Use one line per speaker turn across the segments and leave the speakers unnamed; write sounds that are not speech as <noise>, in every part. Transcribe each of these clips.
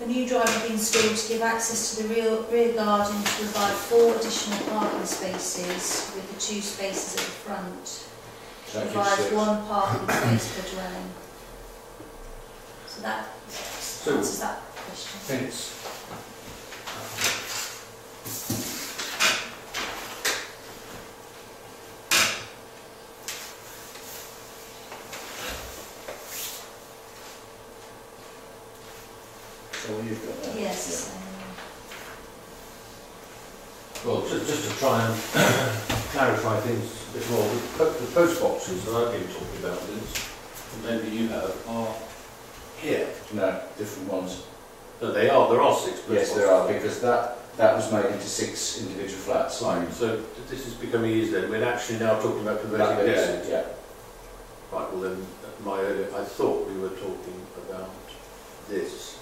The new drive has been installed to give access to the rear, rear garden to provide four additional parking spaces with the two spaces at the front.
So that gives
Provide
six.
one parking space per dwelling. So that answers that question.
minutes. So you've got that?
Yes,
Well, just, just to try and <coughs> clarify things a bit more, the po- the post boxes that I've been talking about, Liz, and maybe you have, are here.
No, different ones.
No, they are, there are six post boxes.
Yes, there are, because that, that was made into six individual flats.
Right, so th- this is becoming easier, then. we're actually now talking about
That bit,
converting this.
yeah, yeah.
Right, well then, my earlier, I thought we were talking about this,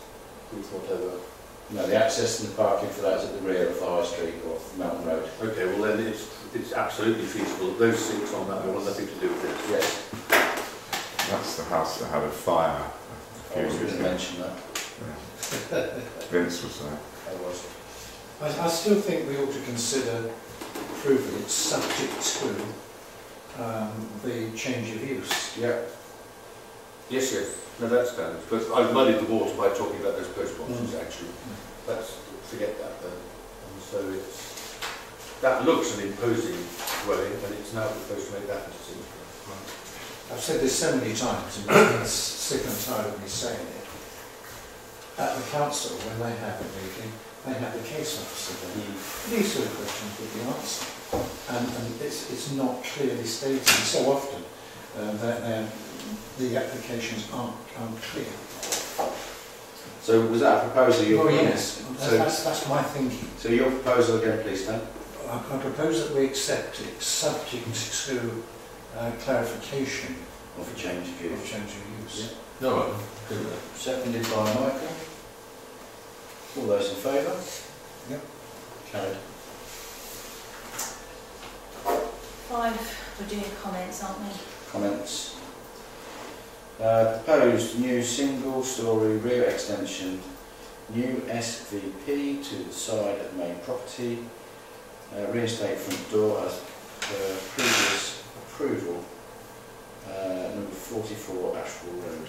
oh, with whatever.
No, the access and the parking for that is at the rear of the High Street or Mountain Road.
Okay, well then, it's, it's absolutely feasible, those six on that, they want nothing to do with this.
Yes,
That's the house that had a fire.
I
a few
was going
years
to
ago.
mention that.
Vince was there.
I was.
I, I still think we ought to consider approving it subject to um, the change of use.
Yeah,
Yes, yes, no, that's standard, but I've muddied the water by talking about those post boxes, actually. Let's forget that then. And so it's, that looks an imposing dwelling, and it's now proposed to make that into six.
I've said this so many times, and I'm sick and tired of me saying it. At the council, when they have a meeting, they have the case officer there.
Hmm.
These sort of questions would be answered, and, and it's, it's not clearly stated so often uh, that they're- the applications aren't, aren't clear.
So was that a proposal you?
Well, yes,
So-
that's, that's, that's my thinking.
So your proposal again, please, Dan?
I I propose that we accept it, subject to uh, clarification
Or for change of
of
view?
change of use.
No,
Seconded by Michael. All those in favour?
Yep.
Carried.
five, we're doing comments, aren't we?
Comments? Uh, proposed new single-storey rear extension, new SVP to the side of main property, uh, reinstate front door as per previous approval, uh, number forty-four Ashwell Road.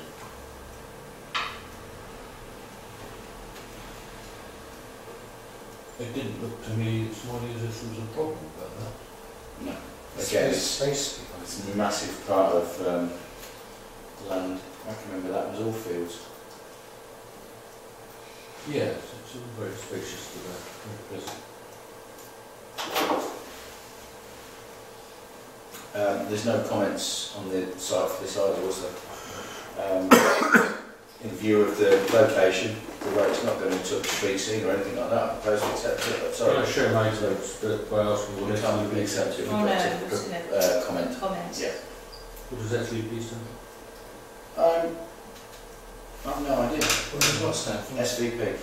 It didn't look to me this morning as if there was a problem about that.
No. Again,
Space,
it's-
space
It's
provided.
a massive part of um, land. I can remember that was all fields.
Yes, it's all very spacious to that, at present.
Um, there's no comments on the site for this either, was there? Um, in view of the location, the road's not going to touch street scene or anything like that. I propose we accept it. but
Can I
Sorry.
show my notes but by asking what
We
it's
can't really accept it. We've
Oh,
got
no,
to
we're just gonna-
uh, comment.
Comments.
Yeah.
What does that leave, Peter?
Um, I've no idea.
What does that stand for?
SVP.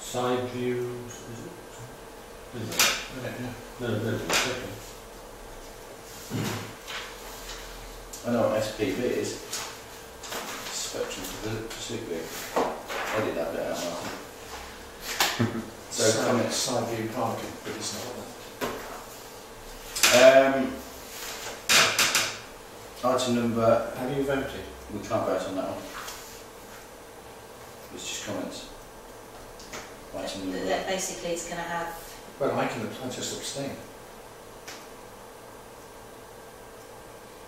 Side views, is it? Isn't it? No, no, no, okay.
I know what SPV is. Spectrum Pursuit Vehicle. Edit that bit out, Martin. So
Side-
comments.
Side view parking, but it's not that.
Um, item number,
Have you voted?
we can't vote on that one. It's just comments. Item
That-
number,
That basically it's going to have,
Well, I can, I just abstain.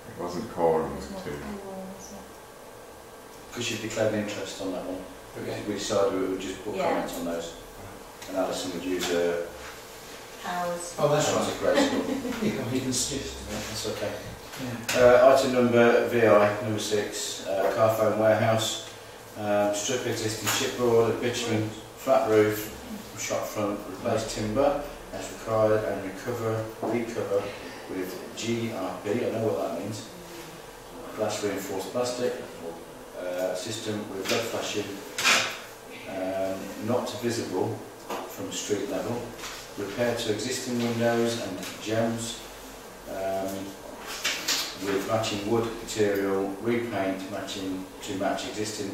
It wasn't quorum
there's more
too.
people, isn't it?
because you've declared an interest on that one.
Okay.
We decided we would just put
Yeah.
comments on those. And Alison would use a,
powers.
Oh, that's
that's
right.
a great score.
You can, you can suggest that.
That's okay.
Yeah.
Uh, item number VI, number six, uh, Carphone Warehouse, um, strip existing chipboard, a bitumen flat roof, shot front, replace timber as required and recover, recover with GRP, I know what that means, glass reinforced plastic, uh, system with red flashing, um, not visible from street level, repair to existing windows and jams, um, with matching wood material, repaint matching to match existing